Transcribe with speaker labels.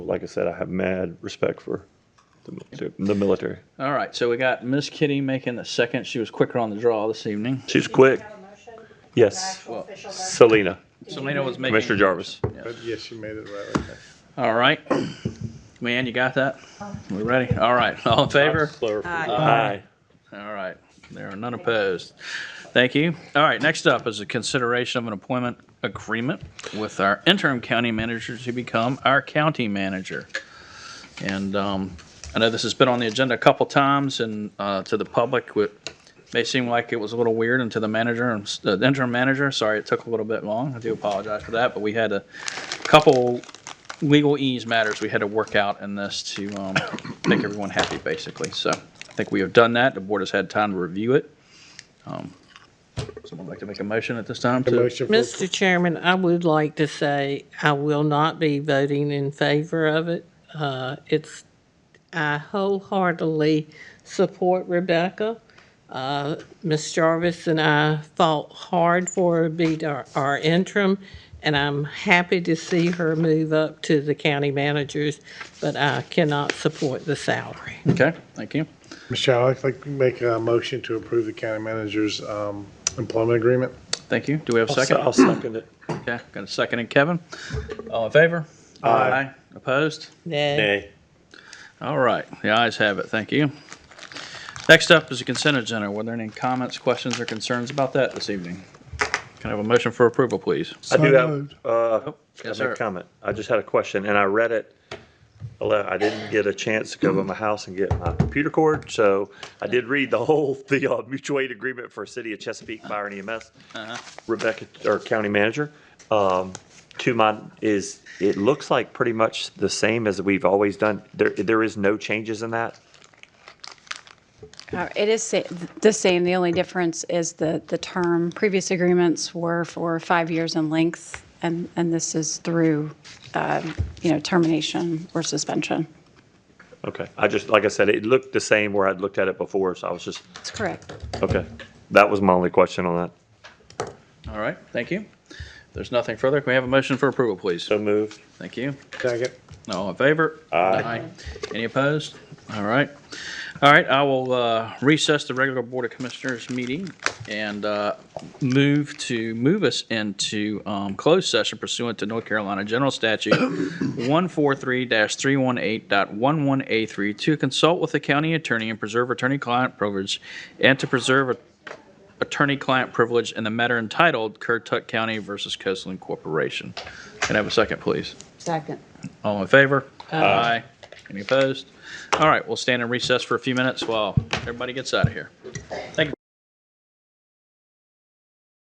Speaker 1: like I said, I have mad respect for the military. The military.
Speaker 2: All right, so we got Miss Kitty making the second. She was quicker on the draw this evening.
Speaker 1: She's quick.
Speaker 3: Have a motion?
Speaker 1: Yes.
Speaker 3: Actual official motion?
Speaker 1: Selena,
Speaker 2: Selena was making.
Speaker 1: Commissioner Jarvis.
Speaker 4: But yes, you made it right. okay.
Speaker 2: All right. Man, you got that? We're ready. All right, all in favor?
Speaker 1: Slower for
Speaker 5: Aye.
Speaker 1: you. Aye.
Speaker 2: All right, there are none opposed. Thank you. All right, next up is a consideration of an employment agreement with our interim county manager to become our county manager. And um, I know this has been on the agenda a couple times and uh, to the public, it may seem like it was a little weird and to the manager, and s- uh, the interim manager, sorry, it took a little bit long. I do apologize for that, but we had a couple legal ease matters we had to work out in this to um, make everyone happy, basically. So I think we have done that. The board has had time to review it. Um, Someone like to make a motion at this time?
Speaker 4: The
Speaker 2: to-
Speaker 4: motion for-
Speaker 5: Mr. Chairman, I would like to say I will not be voting in favor of it. Uh, It's, I wholeheartedly support Rebecca. Uh, Ms. Jarvis and I fought hard for her to be our- our interim, and I'm happy to see her move up to the county managers, but I cannot support the salary.
Speaker 2: Okay, thank you.
Speaker 4: Michelle, I'd like to make a motion to approve the county manager's um, employment agreement.
Speaker 2: Thank you. Do we have a
Speaker 1: I'll se-
Speaker 2: second?
Speaker 1: I'll second it.
Speaker 2: Okay, got a second and Kevin. All in favor? Aye. Opposed?
Speaker 5: Nay.
Speaker 1: Nay.
Speaker 2: All right, the ayes have it. Thank you. Next up is the consent agenda. Were there any comments, questions, or concerns about that this evening? Can I have a motion for approval, please?
Speaker 1: I do have,
Speaker 4: moved.
Speaker 1: uh,
Speaker 2: Yes,
Speaker 1: I make
Speaker 2: sir.
Speaker 1: a comment. I just had a question, and I read it. a lot. I didn't get a chance to go to my house and get my computer cord, so I did read the whole, the uh, mutual aid agreement for City of Chesapeake Fire and EMS.
Speaker 2: Uh-huh.
Speaker 1: Rebecca, or county manager, um, to my, is, it looks like pretty much the same as we've always done. There, there is no changes in that?
Speaker 6: Uh, It is sa- the same. The only difference is the, the term. Previous agreements were for five years in length, and, and this is through, um, you know, termination or suspension.
Speaker 1: Okay, I just, like I said, it looked the same where I'd looked at it before, so I was just,
Speaker 6: That's correct.
Speaker 1: okay. That was my only question on that.
Speaker 2: All right, thank you. If There's nothing further. Can we have a motion for approval, please?
Speaker 1: So moved.
Speaker 2: Thank you.
Speaker 4: Second.
Speaker 2: All in favor? Aye. Any opposed? All right. All right, I will uh, recess the regular Board of Commissioners meeting and uh, move to, move us into um, closed session pursuant to North Carolina General Statute 143-318.11A3 to consult with the county attorney and preserve attorney-client privilege and to preserve attorney-client privilege in the matter entitled Currituck County versus Coastal Corporation. Can I have a second, please?
Speaker 5: Second.
Speaker 2: All in favor? Aye. Any opposed? All right, we'll stand in recess for a few minutes while everybody gets out of here. Thank you.